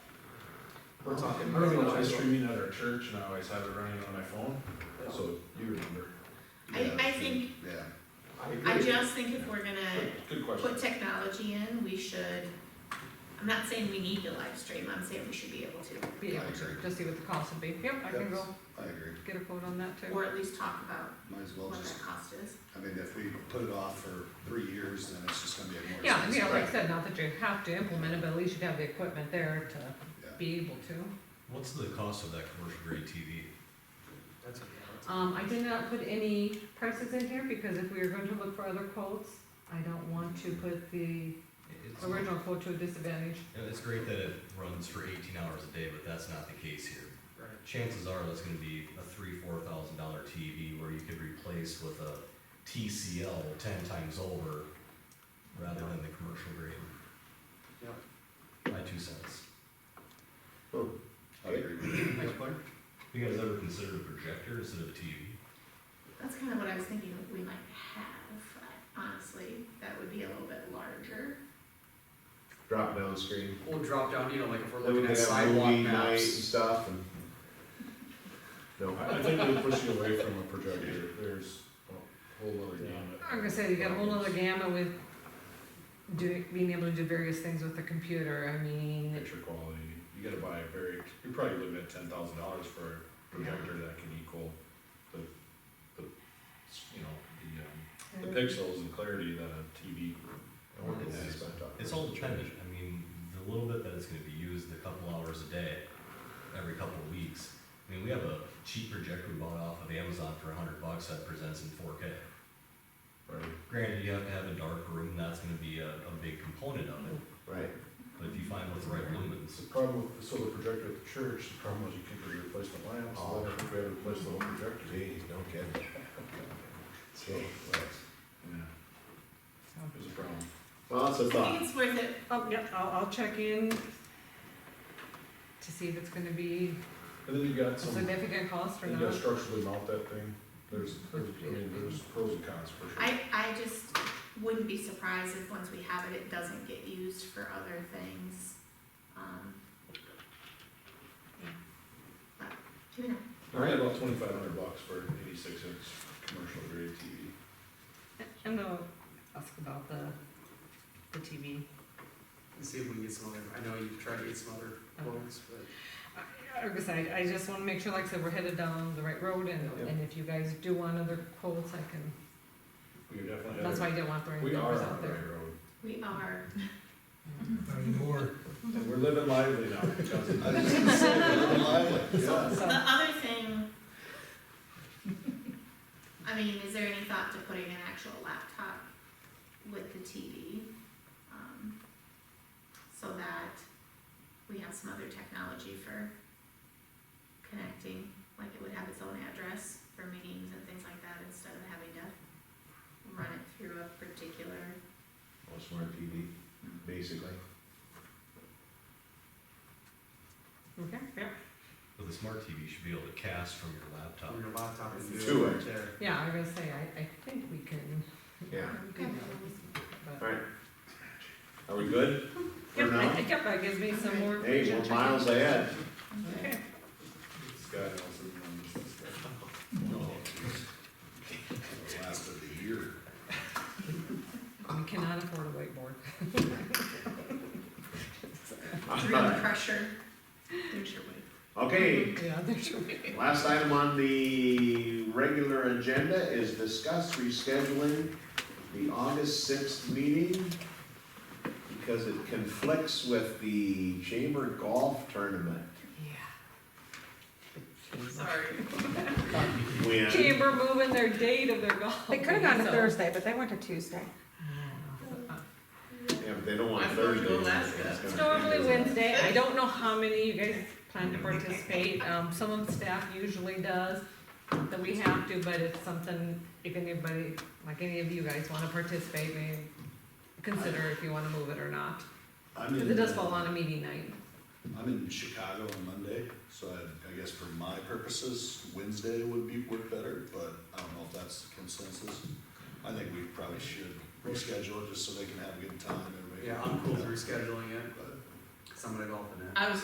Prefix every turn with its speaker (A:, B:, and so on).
A: We're talking.
B: Remember when I was streaming at our church and I always had it running on my phone?
A: So,
B: So you remember.
C: I-
D: Yeah,
C: I
D: sure.
C: think-
D: Yeah,
A: I
C: I
A: agree.
C: just think if we're gonna
B: Good question.
C: put technology in, we should, I'm not saying we need to live stream, I'm saying we should be able to,
E: Be able to, just see what the cost would be. Yep, I can go
D: That's- I agree,
E: get a quote on that too.
C: or at least talk about
D: might as well
C: what
D: just,
C: that cost is.
D: I mean, if we put it off for three years, then it's just gonna be a more
E: Yeah, you know,
D: expensive.
E: like I said, not that you have to implement it, but at least you'd have the equipment there to
D: Yeah.
E: be able to.
F: What's the cost of that commercial grade TV?
A: That's a-
E: Um, I did not put any prices in here because if we are going to look for other quotes, I don't want to put the
F: It's,
E: original quote to a disadvantage.
F: yeah, it's great that it runs for eighteen hours a day, but that's not the case here.
A: Right.
F: Chances are that's gonna be a three, four thousand dollar TV where you could replace with a TCL ten times over rather than the commercial grade.
A: Yep.
F: My two cents.
D: I agree with you.
F: You guys ever considered a projector instead of a TV?
C: That's kind of what I was thinking we might have, honestly, that would be a little bit larger.
G: drop down screen.
A: We'll drop down, you know, like if we're
G: Then we
A: looking
G: could
A: at
G: have
A: sidewalk
G: movie night and
A: maps.
G: stuff and. No,
B: I, I think they push you away from a projector. There's a whole other gamut.
E: I'm gonna say you got a whole nother gamut with doing, being able to do various things with the computer. I mean,
B: Picture quality. You gotta buy a very, you're probably looking at ten thousand dollars for a projector that can equal the, the, you know, the, um, the pixels and clarity that a TV.
G: I wonder if this is my talk.
F: It's all dependent, I mean, the little bit that it's gonna be used, the couple hours a day, every couple of weeks. I mean, we have a cheap projector we bought off of Amazon for a hundred bucks that presents in four K.
B: Right.
F: Granted, you have to have a dark room, that's gonna be a, a big component of it,
G: Right,
F: but if you find what's the right lumens,
B: The problem, with- so the projector at the church, the problem was you couldn't replace the lamps, so I think we had
D: Oh.
B: to replace the whole projector.
G: geez, no kidding. So, well,
B: Yeah, it was a problem.
G: well, that's a
C: I think
G: thought.
C: it's worth it,
E: oh, yep, I'll, I'll check in to see if it's gonna be
B: And then you got
E: a
B: some,
E: significant cost or
B: you
E: not.
B: gotta structurally mount that thing, there's, there's, I mean, there's pros and cons for sure.
C: I, I just wouldn't be surprised if once we have it, it doesn't get used for other things, um. yeah. But, who knows?
B: I had about twenty-five hundred bucks for eighty-six inch commercial grade TV.
E: And they'll ask about the, the TV.
A: And see if we can get some other, I know you've tried to get some other quotes, but.
E: I- Like I said, I just wanna make sure, like I said, we're headed down the right road and,
B: Yeah.
E: and if you guys do want other quotes, I can,
B: We could definitely.
E: that's why I didn't want throwing
B: We are
E: numbers
B: on
E: out
B: the
E: there.
B: right road,
C: We are,
B: and we're living lively now, because of
D: I was just gonna say, we're living lively, yeah.
C: so the other thing. I mean, is there any thought to putting an actual laptop with the TV? um, So that we have some other technology for connecting, like it would have its own address for meetings and things like that, instead of having to run it through a particular,
G: Well, smart TV, basically.
E: Okay, yeah,
F: but the smart TV should be able to cast from your laptop.
A: Your laptop and do
G: Oh. Two
A: it
G: ways.
A: right there.
E: yeah, I was gonna say, I, I think we can.
G: Yeah.
E: do that, but-
G: Alright. Are we good? For
E: Yep, I
G: now?
E: think, yep, that gives me some more.
G: Hey,
E: information
G: we're
E: to check
G: miles
E: out.
G: ahead.
E: Okay.
B: Scott Nelson on this discussion.
D: The Last of the year.
E: We cannot afford a whiteboard.
C: real pressure. There's your way.
G: Okay,
E: Yeah, there's your way.
G: last item on the regular agenda is discuss rescheduling the August sixth meeting because it conflicts with the Chamber Golf Tournament.
E: Yeah.
C: Sorry.
G: Win.
E: Chamber moving their date of their golf.
H: They could have gone to
E: so-
H: Thursday, but they went to Tuesday.
E: Yeah.
G: Yeah, but they don't want
C: I'm going to
G: Thursday.
C: Alaska.
G: It's
E: It's
G: gonna-
E: normally Wednesday, I don't know how many you guys plan to participate, um, some of the staff usually does, that we have to, but it's something, if anybody, like any of you guys wanna participate, may consider if you wanna move it or not,
D: I'm
E: cause
D: in,
E: it does fall on a meeting night.
D: I'm in Chicago on Monday, so I, I guess for my purposes, Wednesday would be, work better, but I don't know if that's the consensus. I think we probably should reschedule it just so they can have a good time, everybody.
A: Yeah, I'm cool with rescheduling it, but somebody golfing it.
I: I was